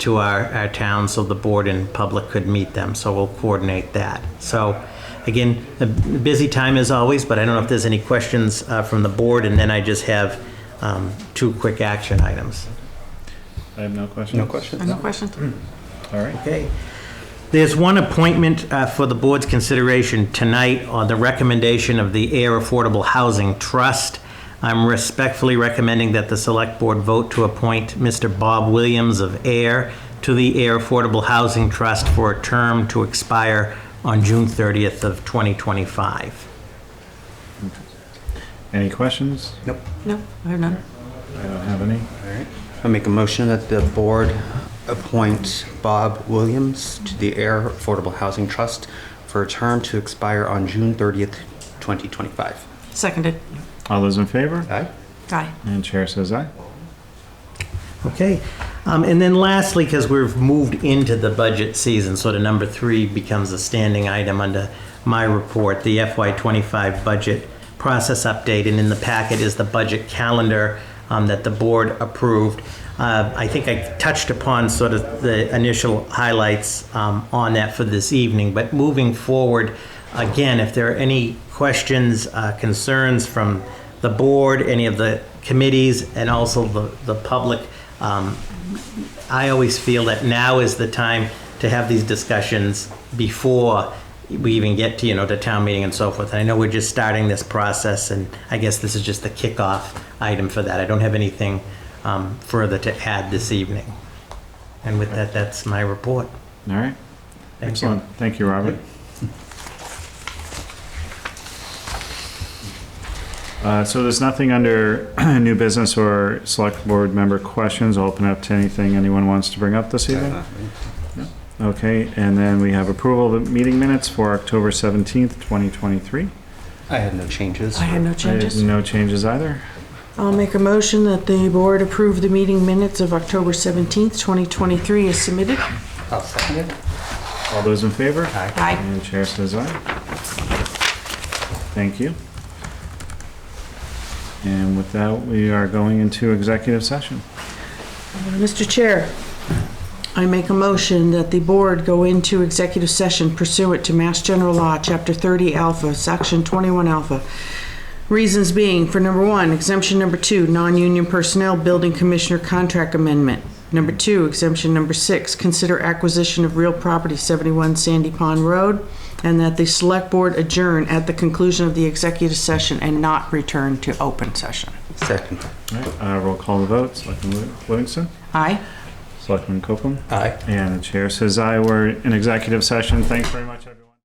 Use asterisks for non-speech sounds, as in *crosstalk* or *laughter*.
to our, our town so the board and public could meet them. So we'll coordinate that. So again, a busy time as always, but I don't know if there's any questions uh, from the board. And then I just have um, two quick action items. I have no questions. Hmm. No questions? No questions? All right. Okay. There's one appointment uh, for the board's consideration tonight on the recommendation of the Air Affordable Housing Trust. I'm respectfully recommending that the select board vote to appoint Mr. Bob Williams of Air to the Air Affordable Housing Trust for a term to expire on June 30th of 2025. Any questions? Nope. No, I have none. I don't have any. I make a motion that the board appoint Bob Williams to the Air Affordable Housing Trust for a term to expire on June 30th, 2025. Seconded. All those in favor? Aye? Aye. And chair says aye. Okay. Um, And then lastly, because we've moved into the budget season, so the number three becomes a standing item under my report, the FY25 budget process update. And in the packet is the budget calendar um, that the board approved. Uh, I think I touched upon sort of the initial highlights um, on that for this evening. But moving forward, again, if there are any questions, uh, concerns from the board, any of the committees, and also the, the public, um, I always feel that now is the time to have these discussions before we even get to, you know, to town meeting and so forth. And I know we're just starting this process, and I guess this is just the kickoff item for that. I don't have anything um, further to add this evening. And with that, that's my report. All right. Thank you. Excellent. Thank you, Robert. Uh, So there's nothing under *clears throat* new business or select board member questions. I'll Open up to anything anyone wants to bring up this evening. Okay, and then we have approval of meeting minutes for October 17th, 2023. I had no changes. I had no I had changes. No changes either. I'll make a motion that the board approve the meeting minutes of October 17th, 2023 as submitted. I'll second it. All those in favor? Aye. And chair says aye. Thank you. And with that, we are going into executive session. Mr. Chair, I make a motion that the board go into executive session pursuant to Mass General Law, Chapter 30 Alpha, Section 21 Alpha. Reasons being, for number one, exemption number two, non-union personnel, building commissioner contract amendment. Number two, exemption number six, consider acquisition of real property, 71 Sandy Pond Road, and that the select board adjourn at the conclusion of the executive session and not return to open session. Second. All right, uh, roll call the vote. Selectman Liv- Livingston? Aye? Selectman Copeland? Aye. And the chair says aye. We're in executive session. Thanks very much.